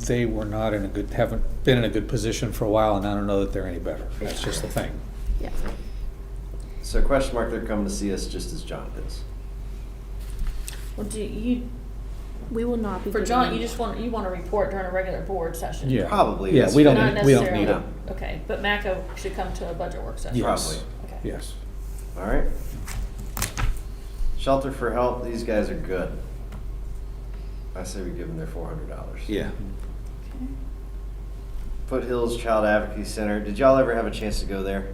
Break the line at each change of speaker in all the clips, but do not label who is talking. they were not in a good, haven't been in a good position for a while, and I don't know that they're any better. That's just the thing.
Yeah.
So question mark, they're coming to see us just as Jonathan's.
Well, do you, we will not be.
For
giving
John,
them-
you just want, you want a report during a regular board session?
Yeah.
Probably
Yeah,
that's
we don't,
Not
need- we don't
necessarily,
need it.
No.
okay, but Mako should come to a budget work session?
Yes.
Probably.
Okay.
Yes.
All right. Shelter for Help, these guys are good. I say we give them their four hundred dollars. Foothills Child Advocacy Center. Did y'all ever have a chance to go there?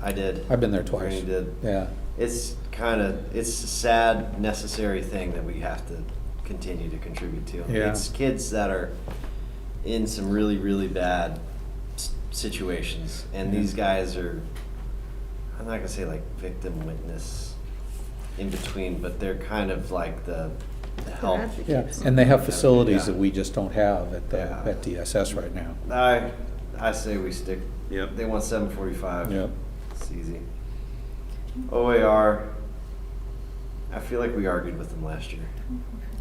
I did.
I've been there twice.
Randy did.
Yeah.
It's kind of it's a sad, necessary thing that we have to continue to contribute to.
Yeah.
It's kids that are in some really, really bad s- situations, and
Yeah.
these guys are. I'm not gonna say like victim witness in between, but they're kind of like the, the help.
advocates.
Yeah, and they have facilities
Yeah.
that we just don't have at the,
Yeah.
at DSS right now.
I I say we stick.
Yep.
They want seven forty-five.
Yep.
It's easy. OAR. I feel like we argued with them last year.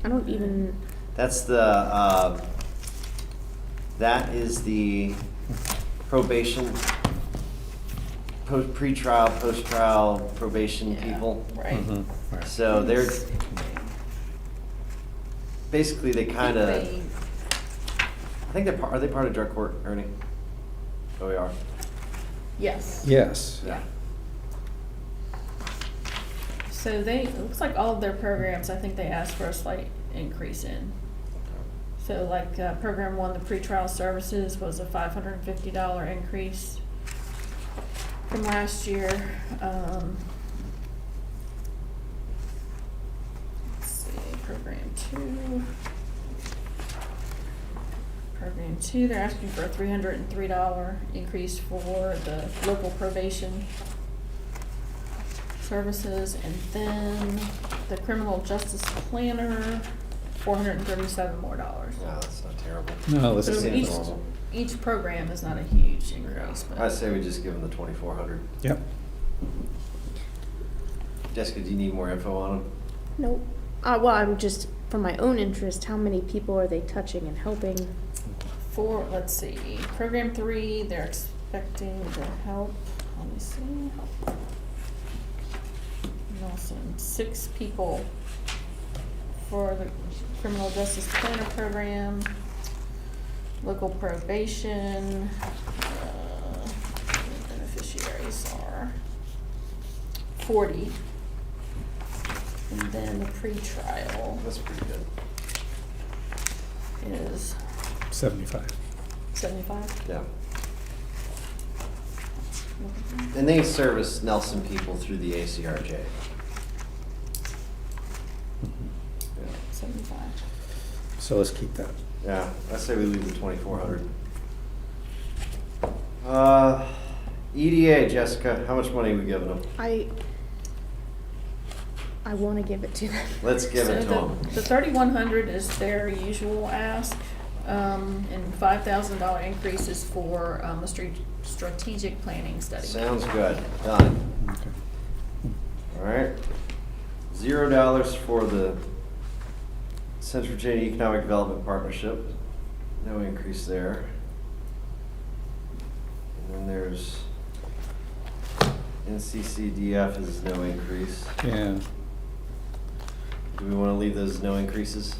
I don't even,
That's the, uh, that is the probation, post, pretrial, post-trial probation
Yeah,
people.
Right.
Mhm. Right.
So they're, basically, they kind of,
They-
I think they're, par- are they part of drug court, Ernie? Oh, OAR?
Yes.
Yes.
Yeah. So they, it looks like all of their programs, I think they asked for a slight increase in. So like, uh, program one, the pretrial services was a five hundred and fifty dollar increase from last year, um. Let's see, program two. Program two, they're asking for a three hundred and three dollar increase for the local probation services, and then the criminal justice planner, four hundred and thirty-seven more dollars.
No, that's not terrible.
No, this
So
is.
each,
normal.
each program is not a huge increase, but.
I say we just give them the twenty-four hundred.
Yep.
Jessica, do you need more info on them?
no, uh, well, I'm just, for my own interest, how many people are they touching and helping?
For, let's see, program three, they're expecting the help, let me see. Nelson, six people for the criminal justice planner program, local probation, uh, beneficiaries are forty. And then the pretrial
That's pretty good.
is
Seventy-five.
seventy-five.
Yeah. And they service Nelson people through the ACRJ. Yeah.
Seventy-five.
So let's keep that.
Yeah, I say we leave the twenty-four hundred. Uh, EDA, Jessica, how much money are we giving them?
I, I wanna give it to them.
Let's give it to
So
them.
the- The thirty-one hundred is their usual ask, um, and five thousand dollar increase is for, um, a stre- strategic planning study.
Sounds good, done.
Okay.
All right. Zero dollars for the Central Virginia Economic Development Partnership. No increase there. And then there's NCCDF is no increase.
Yeah,
Do we want to leave those no increases?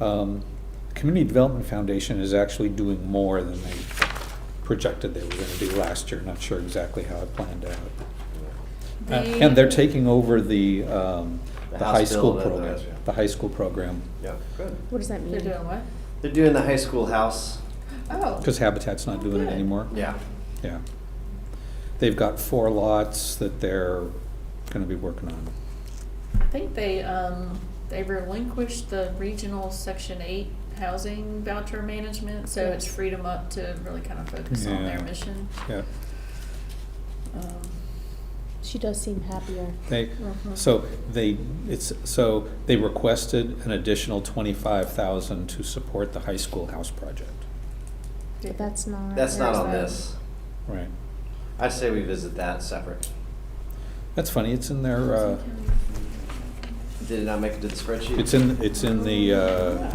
um, Community Development Foundation is actually doing more than they projected they were gonna do last year, not sure exactly how it planned out. Uh,
They-
And they're taking over the, um,
The
the
House
high school
bill, the-
program,
the-
the high school program,
Yeah, good.
What does that mean?
They're doing what?
They're doing the high school house.
Oh.
because Habitat's not doing it
Good.
anymore.
Yeah.
Yeah. They've got four lots that they're gonna be working on.
I think they, um, they relinquished the regional section eight housing voucher management, so it's freed them up to really kind of focus on their
Yeah.
mission.
Yeah,
Um,
She does seem happier.
they,
Mhm.
so they, it's, so they requested an additional twenty-five thousand to support the high school house project.
But that's not.
That's not
There's
on
that.
this.
Right.
I say we visit that separate.
That's funny, it's in their, uh,
Did it not make it to the spreadsheet?
it's in, it's in the, uh,